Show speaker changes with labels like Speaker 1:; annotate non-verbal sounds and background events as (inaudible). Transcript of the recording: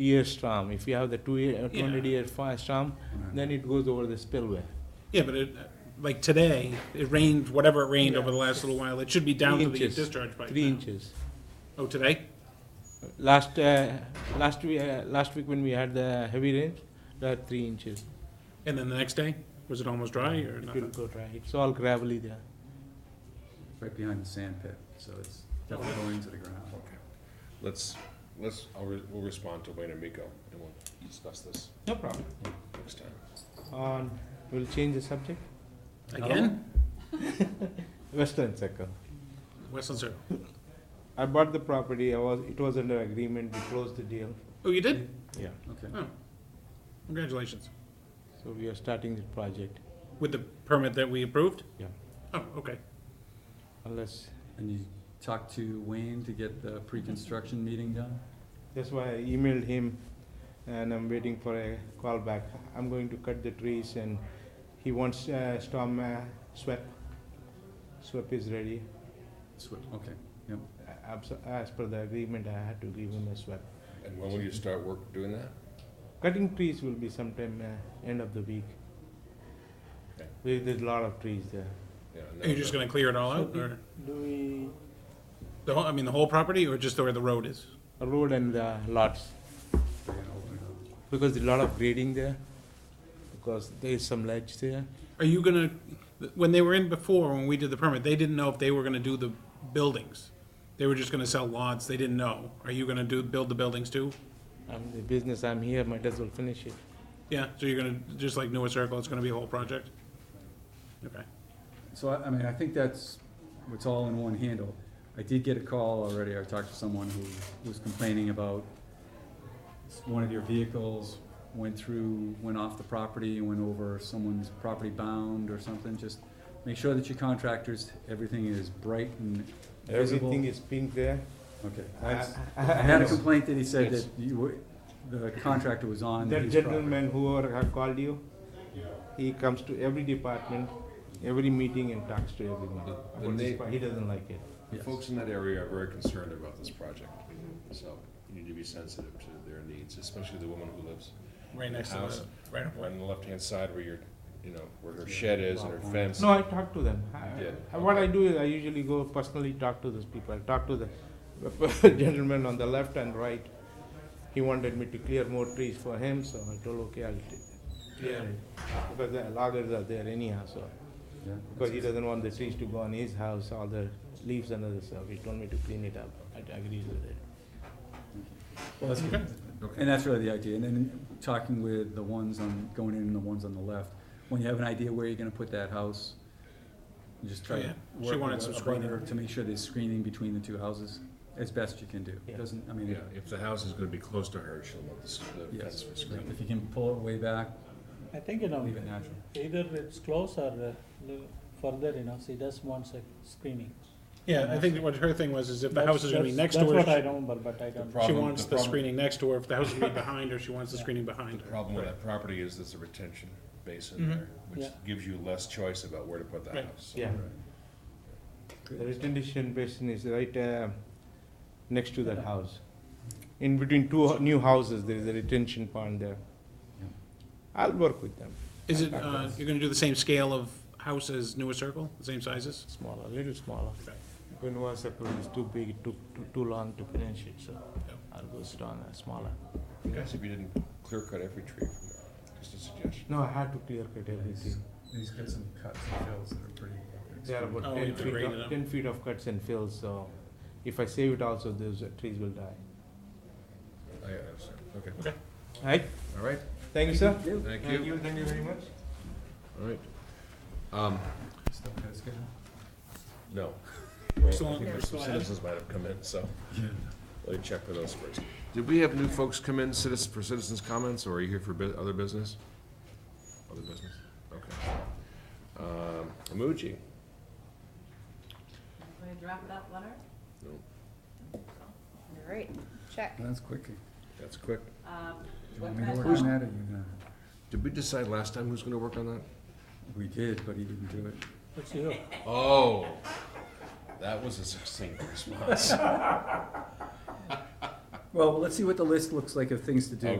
Speaker 1: years term. If you have the two year,
Speaker 2: Yeah.
Speaker 1: twenty year fast term, then it goes over the spillway.
Speaker 2: Yeah, but it, like today, it rained, whatever it rained over the last little while, it should be down
Speaker 1: Three
Speaker 2: to the
Speaker 1: inches.
Speaker 2: discharge pipe
Speaker 1: Three
Speaker 2: now.
Speaker 1: inches.
Speaker 2: Oh, today?
Speaker 1: Last, uh, last week, uh, last week when we had the heavy rain, that three inches.
Speaker 2: And then the next day? Was it almost dry or
Speaker 1: It will
Speaker 2: nothing?
Speaker 1: go dry. It's all gravelly there.
Speaker 3: right behind the sand pit, so it's definitely going into the ground.
Speaker 4: Okay. Let's, let's, I'll, re- we'll respond to Wayne and Miko, and we'll discuss this
Speaker 1: No problem.
Speaker 4: next time.
Speaker 1: On, we'll change the subject.
Speaker 2: Again?
Speaker 1: Western Circle.
Speaker 2: Westland Circle.
Speaker 1: I bought the property. I was, it was under agreement. We closed the deal.
Speaker 2: Oh, you did?
Speaker 1: Yeah.
Speaker 3: Okay.
Speaker 2: Oh. Congratulations.
Speaker 1: So we are starting the project
Speaker 2: With the permit that we approved?
Speaker 1: Yeah.
Speaker 2: Oh, okay.
Speaker 1: unless,
Speaker 3: And you talked to Wayne to get the pre-construction meeting done?
Speaker 1: that's why I emailed him and I'm waiting for a call back. I'm going to cut the trees and he wants uh, storm uh, swept. Swept is ready.
Speaker 3: Swi- Okay,
Speaker 1: A- abs- As per the agreement, I had to give him a swept.
Speaker 4: And when will you start work doing that?
Speaker 1: Cutting trees will be sometime uh, end of the week.
Speaker 4: Okay.
Speaker 1: There- There's a lot of trees there.
Speaker 4: Yeah, and
Speaker 2: Are you just
Speaker 4: then-
Speaker 2: gonna clear it all out, or,
Speaker 1: Do we?
Speaker 2: the whole, I mean, the whole property, or just where the road is?
Speaker 1: Road and the lots.
Speaker 3: we're gonna open it up.
Speaker 1: Because there's a lot of grading there, because there is some ledge there.
Speaker 2: Are you gonna, when they were in before, when we did the permit, they didn't know if they were gonna do the buildings. They were just gonna sell lots, they didn't know. Are you gonna do, build the buildings too?
Speaker 1: I'm the business, I'm here, might as well finish it.
Speaker 2: Yeah, so you're gonna, just like Newer Circle, it's gonna be a whole project? Okay.
Speaker 3: So I, I mean, I think that's, it's all in one handle. I did get a call already, I talked to someone who was complaining about s- one of your vehicles went through, went off the property, went over someone's property bound or something, just make sure that your contractors, everything is bright and visible.
Speaker 1: Everything is pink there.
Speaker 3: Okay,
Speaker 1: I-
Speaker 3: that's,
Speaker 1: I-
Speaker 3: I had a
Speaker 1: yes.
Speaker 3: complaint that he said
Speaker 1: Yes.
Speaker 3: that you were, the contractor was on
Speaker 1: That
Speaker 3: his property.
Speaker 1: gentleman whoever have called you, he comes to every department, every meeting and talks to everyone. Which
Speaker 4: When
Speaker 1: is
Speaker 4: they-
Speaker 1: why He doesn't like it.
Speaker 4: The
Speaker 3: Yes.
Speaker 4: folks in that area are very concerned about this project, so you need to be sensitive to their needs, especially the woman who lives
Speaker 2: Right next to
Speaker 4: House.
Speaker 2: the, right up
Speaker 4: right on the left-hand side where your, you know, where her shed is and her fence.
Speaker 1: No, I talk to them. I-
Speaker 4: You did,
Speaker 1: I- What I
Speaker 4: okay.
Speaker 1: do is I usually go personally talk to those people. I talk to the (laughs) gentleman on the left and right. He wanted me to clear more trees for him, so I told, okay, I'll t- clear it. Because the loggers are there anyhow, so.
Speaker 3: Yeah.
Speaker 1: Because he doesn't want the trees to go on his house, all the leaves and other stuff. He told me to clean it up. I agreed with it.
Speaker 3: Well, that's
Speaker 1: (laughs)
Speaker 3: good.
Speaker 4: Okay.
Speaker 3: And that's really the idea, and then talking with the ones on, going in and the ones on the left, when you have an idea where you're gonna put that house, you just try
Speaker 2: Oh, yeah.
Speaker 3: to
Speaker 2: She
Speaker 3: work with
Speaker 2: wanted some
Speaker 3: the abutter
Speaker 2: screening.
Speaker 3: To make sure there's screening between the two houses, as best you can do,
Speaker 1: Yeah.
Speaker 3: doesn't, I mean,
Speaker 4: Yeah, if the house is gonna be close to her, she'll want this- the
Speaker 3: yes,
Speaker 4: fence to screen.
Speaker 3: if you can pull it way back,
Speaker 5: I think, you know,
Speaker 3: leave it natural.
Speaker 5: either it's close or uh, li- further, you know, she just wants a screening.
Speaker 2: Yeah, I think what her thing was is if the house is gonna be next
Speaker 5: That's-
Speaker 2: to
Speaker 5: That's what I
Speaker 2: her,
Speaker 5: remember, but I don't.
Speaker 2: she
Speaker 4: Problem-
Speaker 2: wants
Speaker 4: the
Speaker 2: the
Speaker 4: problem-
Speaker 2: screening next to her. If the house is gonna be behind her, she wants the screening behind
Speaker 4: The
Speaker 2: her.
Speaker 4: problem with
Speaker 2: Right.
Speaker 4: that property is there's a retention basin
Speaker 2: Mhm.
Speaker 4: there, which
Speaker 5: Yeah.
Speaker 4: gives you less choice about where to put the
Speaker 2: Right.
Speaker 4: house.
Speaker 1: Yeah. The retention basin is right uh, next to that house. In between two ho- new houses, there is a retention pond there.
Speaker 3: Yeah.
Speaker 1: I'll work with them,
Speaker 2: Is it, uh, you're gonna do the same scale of house as Newer Circle, the same sizes?
Speaker 1: smaller, little smaller.
Speaker 2: Okay.
Speaker 1: When one circle is too big, it took too- too long to finish it, so
Speaker 2: Yeah.
Speaker 1: I'll go sit on a smaller.
Speaker 4: It'd be nice if you didn't clear cut every tree from there, just a suggestion.
Speaker 1: No, I had to clear cut everything.
Speaker 3: He's got some cuts and fills that are pretty.
Speaker 1: There are
Speaker 2: Oh,
Speaker 1: about
Speaker 2: you
Speaker 1: ten
Speaker 2: have to
Speaker 1: feet,
Speaker 2: grade it
Speaker 1: of-
Speaker 2: up.
Speaker 1: ten feet of cuts and fills, so if I save it also, those uh, trees will die.
Speaker 4: I, I understand, okay.
Speaker 1: Right,
Speaker 4: All right,
Speaker 1: thank you, sir.
Speaker 4: thank you,
Speaker 1: thank you very much.
Speaker 4: all right. Um,
Speaker 3: Still got a schedule?
Speaker 4: no.
Speaker 2: We're still
Speaker 4: I
Speaker 2: on,
Speaker 4: think
Speaker 2: we're
Speaker 4: there's some
Speaker 2: still ahead.
Speaker 4: citizens might have come in, so let me check for those first. Did we have new folks come in citizens, for citizens' comments, or are you here for bu- other business? Other business, okay. Um, Amuji,
Speaker 6: Want to drop that letter?
Speaker 4: No.
Speaker 6: All right, check.
Speaker 3: That's quick.
Speaker 4: that's quick.
Speaker 6: Um,
Speaker 3: Do you
Speaker 6: what
Speaker 3: want me to
Speaker 6: kind of-
Speaker 3: work on that, or you gonna?
Speaker 4: Did we decide last time who's gonna work on that?
Speaker 3: We did, but he didn't do it.
Speaker 5: It's you.
Speaker 4: Oh, that was a succinct response.
Speaker 3: Well, let's see what the list looks like of things to do.